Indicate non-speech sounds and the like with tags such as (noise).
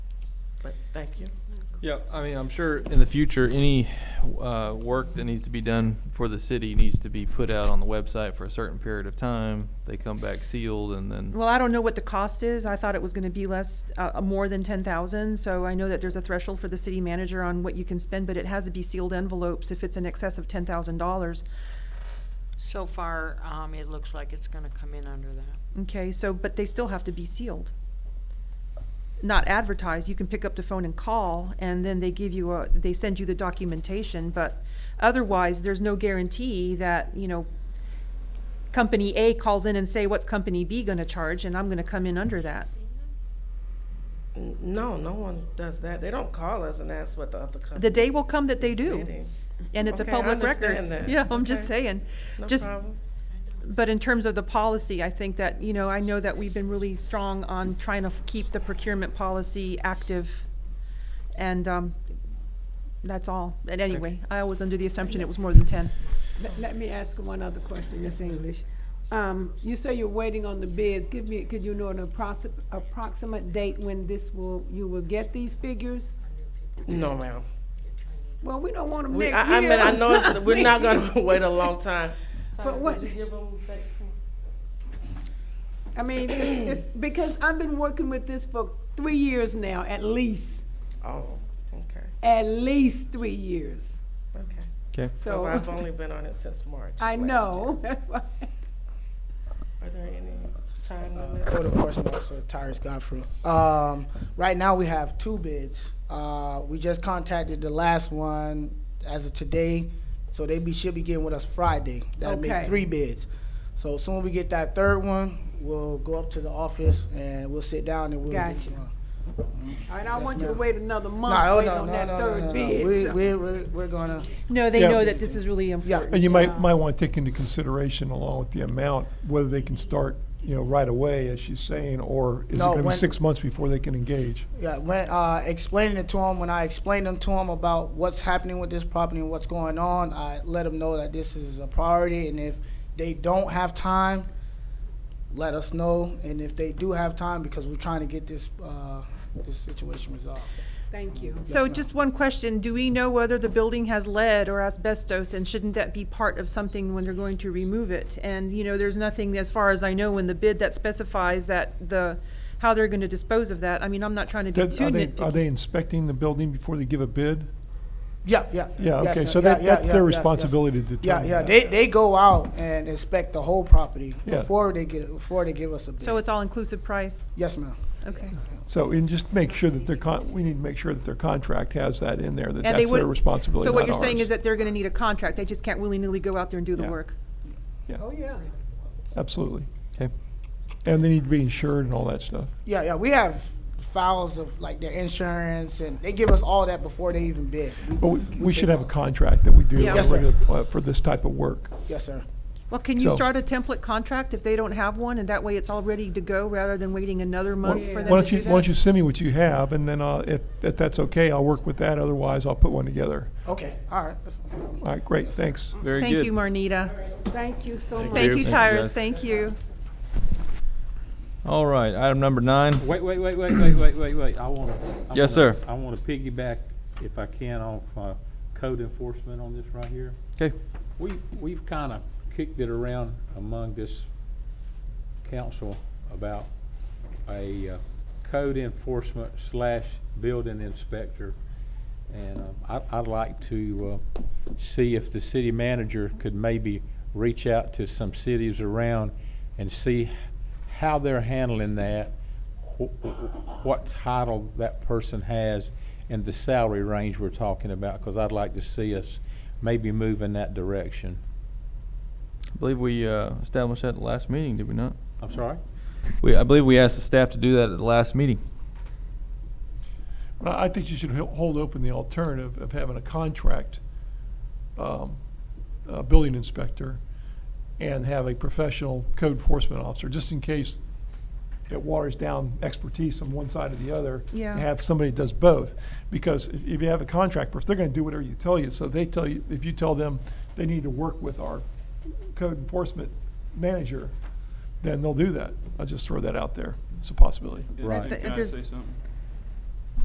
but thank you. Yeah, I mean, I'm sure in the future, any uh, work that needs to be done for the city needs to be put out on the website for a certain period of time. They come back sealed and then, Well, I don't know what the cost is. I thought it was gonna be less, uh, uh, more than ten thousand, so I know that there's a threshold for the city manager on what you can spend, but it has to be sealed envelopes if it's in excess of ten thousand dollars. So far, um, it looks like it's gonna come in under that. Okay, so, but they still have to be sealed. Not advertised, you can pick up the phone and call, and then they give you a, they send you the documentation, but otherwise, there's no guarantee that, you know, company A calls in and say, what's company B gonna charge, and I'm gonna come in under that. N- Mm, No, no one does that. They don't call us and ask what the other company. The day will come that they do, Bidding. and it's a Okay, I public record. understand that. Yeah, I'm just Okay. saying, No just, problem. But in terms of the policy, I think that, you know, I know that we've been really strong on trying to f- keep the procurement policy active. And um, that's all. And anyway, I was under the assumption it was more than 10. Let, let me ask one other question, Miss English. Um, you say you're waiting on the bids. Give me, could you know an approximate, approximate date when this will, you will get these figures? No, ma'am. Well, we don't want them We, next I, I year. mean, I know it's, we're (laughs) not gonna wait a long time. But what- Did you I mean, it's, it's, because I've been working with this for three years now, at least, Oh, okay, at least three years. okay. okay. So I've So, only been on it (laughs) since March. of I last know, (laughs) that's why. year. Are there any time Uh, limits? Code Enforcement Officer Tyrus Godfrey. Um, right now, we have two bids. Uh, we just contacted the last one as of today, so they be, should be getting with us Friday. That'll Okay. make three bids. So as soon as we get that third one, we'll go up to the office and we'll sit down and we'll. get Gotcha. one. All right, I don't Yes, want you to ma'am. wait another month, No, waiting no, on no, that no, no, no, third no. bid. We, so- we, we're, we're gonna, No, they Yeah. know that this is really Yeah. important. And you so- might, might want to take into consideration along with the amount, whether they can start, you know, right away, as she's saying, or is it No, going to be when- six months before they can engage? Yeah, when uh, explaining it to him, when I explained them to him about what's happening with this property and what's going on, I let him know that this is a priority, and if they don't have time, let us know, and if they do have time, because we're trying to get this uh, this situation resolved. Thank you. Yes, So ma'am. just one question, do we know whether the building has lead or asbestos? And shouldn't that be part of something when they're going to remove it? And, you know, there's nothing, as far as I know, in the bid that specifies that the, how they're going to dispose of that. I mean, I'm not trying to Mm. be That- too Are they, nitpicky. are they inspecting the building before they give a bid? Yeah, yeah. Yeah, yes, okay, sir. so Yeah, that, yeah, that's yeah, their yes, yes. responsibility to Yeah, determine yeah, that. they, they go out and inspect the whole property Yeah. before they get before they give us a bid. So it's all-inclusive price? yes, ma'am. Okay. So, and just make sure that their con, we need to make sure that their contract has that in there, that And they that's their would- responsibility, So what not you're saying ours. is that they're gonna need a contract, they just can't willy-nilly go out there and do the Yeah. work? Oh, yeah. Absolutely. Okay. And they need to be insured and all that stuff. Yeah, yeah, we have files of like their insurance, and they give us all that before they even bid. But we, we take should have a all- contract that we do Yeah. on a Yes, sir. regular- uh, for this type of work. Yes, sir. Well, can you So- start a template contract if they don't have one, and that way it's all ready to go, rather than waiting another Why month for why them to don't do you, why don't you that? send me what you have, and then I'll- if, if that's okay, I'll work with that, otherwise I'll put one together. Okay, all right. that's- um, All right, great, Yes, sir. thanks. Very good. Thank you, Marnita. Thank you so much. Thank you, Thank you, guys. Tyrus, thank you. All right, item number nine. Wait, wait, wait, wait, wait, wait, wait, wait, I wanna. I Yes, wanna- sir. I wanna piggyback, if I can, off, uh, code enforcement on this right here. Okay, We, we've kinda kicked it around among this council about a, uh, code enforcement slash building inspector. And, um, I, I'd like to, uh, see if the city manager could maybe reach out to some cities around and see how they're handling that, wh- wh- what title that person has, and the salary range we're talking about, because I'd like to see us maybe move in that direction. I believe we uh, established that at the last meeting, did we not? I'm sorry? We, I believe we asked the staff to do that at the last meeting. Well, I think you should hel- hold open the alternative of having a contract, um, uh, building inspector, and have a professional code enforcement officer, just in case it waters down expertise on one side or the other. Yeah. Have somebody that does both, because if, if you have a contract person, they're gonna do whatever you tell you, so they tell you, if you tell them they need to work with our code enforcement manager, then they'll do that. I'll just throw that out there, it's a possibility. Right. Th- there's- something?